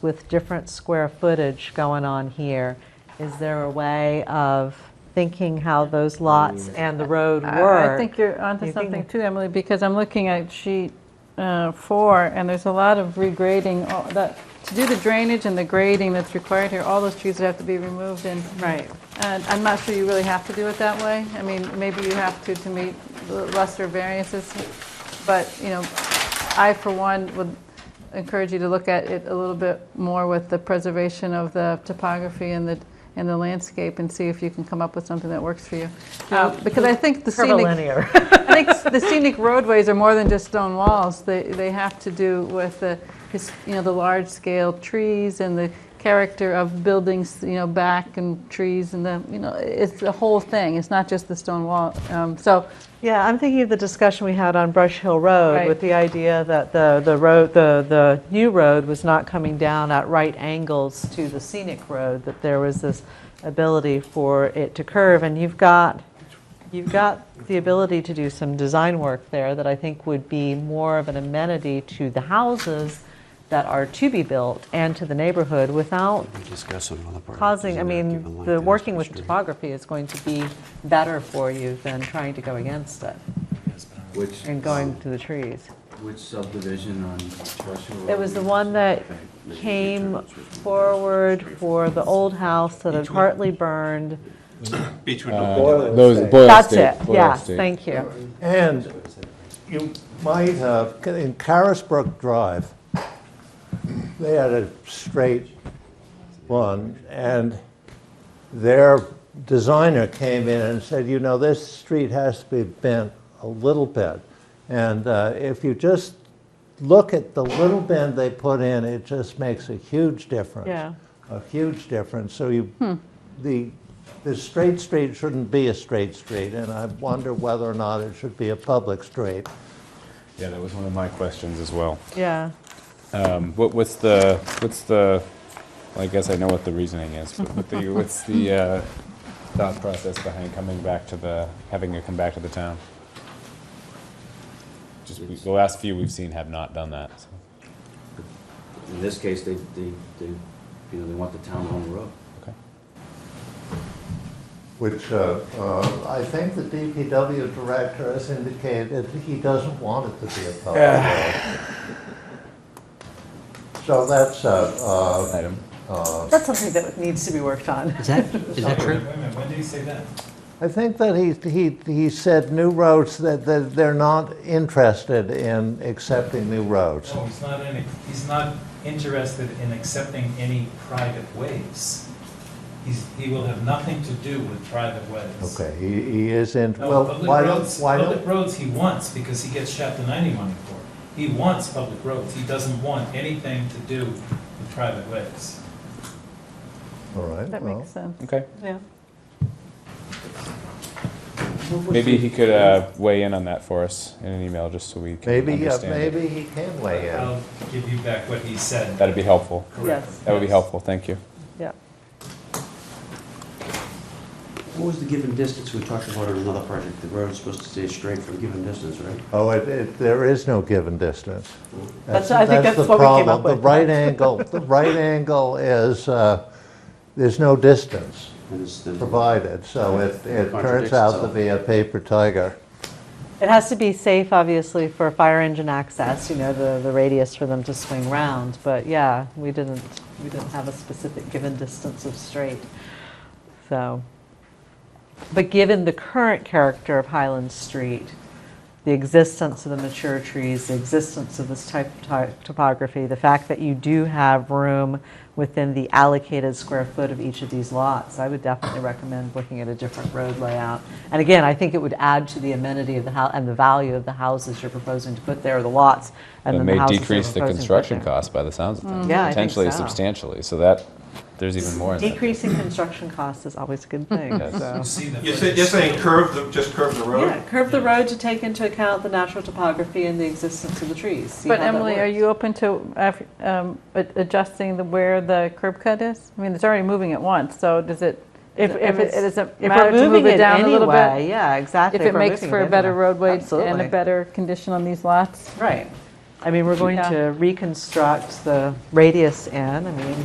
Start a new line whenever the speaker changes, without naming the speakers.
with different square footage going on here, is there a way of thinking how those lots and the road
I- I
work?
think you're onto
You think-
something too, Emily, because I'm looking at sheet uh, four, and there's a lot of regrading, all that, to do the drainage and the grading that's required here, all those trees would have to be removed, and,
Right.
and I'm not sure you really have to do it that way. I mean, maybe you have to to meet the lesser variances, but, you know, I, for one, would encourage you to look at it a little bit more with the preservation of the topography and the, and the landscape, and see if you can come up with something that works for you. Uh, Because I think the scenic...
Curvilinear.
I think the scenic roadways are more than just stone walls. They, they have to do with the, his- you know, the large-scale trees and the character of buildings, you know, back and trees and the, you know, it's the whole thing. It's not just the stone wall. Um, So,
Yeah, I'm thinking of the discussion we had on Brush Hill Road
Right.
with the idea that the, the road, the, the new road was not coming down at right angles to the scenic road, that there was this ability for it to curve, and you've got, you've got the ability to do some design work there that I think would be more of an amenity to the houses that are to be built and to the neighborhood without
Discuss another part.
causing, I mean, the working with topography is going to be better for you than trying to go against it
Which,
and going to the trees.
which subdivision on Churchill Road?
It was the one that came forward for the old house that had partly burned.
Beechwood
Those, Boyle
That's
State,
it,
Boyle
yes,
State.
thank you.
And you might have, in Carisbrook Drive, they had a straight one, and their designer came in and said, you know, this street has to be bent a little bit. And uh, if you just look at the little bend they put in, it just makes a huge difference.
Yeah.
A huge difference. So you, the, the straight street shouldn't be a straight street, and I wonder whether or not it should be a public street.
Yeah, that was one of my questions as well.
Yeah,
Um, What, what's the, what's the, well, I guess I know what the reasoning is, but what the, what's the uh, thought process behind coming back to the, having it come back to the town? Just, we- the last few we've seen have not done that, so.
In this case, they, they, they, you know, they want the town on the road.
okay.
Which uh, uh, I think the DPW director has indicated he doesn't want it to be a public road. So that's uh, a,
Item.
that's something that needs to be worked on.
Is that, is that true?
When did he say that?
I think that he, he, he said new roads, that, that they're not interested in accepting new roads.
No, Oh, he's not in, he's not interested in accepting any private ways. He's, he will have nothing to do with private ways.
Okay, he, he is in,
No,
well,
public
why don't,
roads-
why
Public
don't,
roads he wants because he gets chapter ninety money for. it. He wants public roads. He doesn't want anything to do with private ways.
all right,
that
well.
makes sense.
Okay,
Yeah.
maybe he could uh, weigh in on that for us in an email, just so we can
Maybe, uh,
understand it.
maybe he can weigh in.
I'll give you back what he said.
That'd be helpful,
Correct.
Yes.
that would be helpful, thank you.
Yeah.
What was the given distance we talked about in another project? The road is supposed to stay straight for a given distance, right?
Oh, it, it, there is no given distance.
That's- I think that's
the
what we came
problem.
up with.
The right angle, the right angle is, uh, there's no distance
And it's the-
provided, so it, it turns
Contradicts
out to
itself.
be a paper tiger.
It has to be safe, obviously, for fire engine access, you know, the, the radius for them to swing round. But yeah, we didn't, we didn't have a specific given distance of straight. So, but given the current character of Highland Street, the existence of the mature trees, the existence of this type of ty- topography, the fact that you do have room within the allocated square foot of each of these lots, I would definitely recommend looking at a different road layout. And again, I think it would add to the amenity of the house and the value of the houses you're proposing to put there, or the lots, and then
That
the
may
houses you're
decrease the
proposing to put
construction
there.
cost by the sounds of things.
Mm-hmm. Yeah, I think
Potentially
so.
substantially, so that, there's even more in that.
Decreasing construction cost is always a good thing,
Yes.
so.
You see the
You're saying,
footage.
you're saying curve, the- just curve the road?
Yeah, curve the road to take into account the natural topography and the existence of the trees. See
But
how that
Emily, are
works.
you open to uh, um, a- adjusting the, where the curb cut is? I mean, it's already moving at once, so does it,
If,
does it-
if it's,
does it
if
matter
we're
to move
moving
it down a little bit?
anyway, yeah, exactly.
If it makes
moving
for a better
anyway.
roadway and
Absolutely.
a better condition on these lots?
Right. I mean, we're going
Yeah.
to reconstruct the radius in, I mean,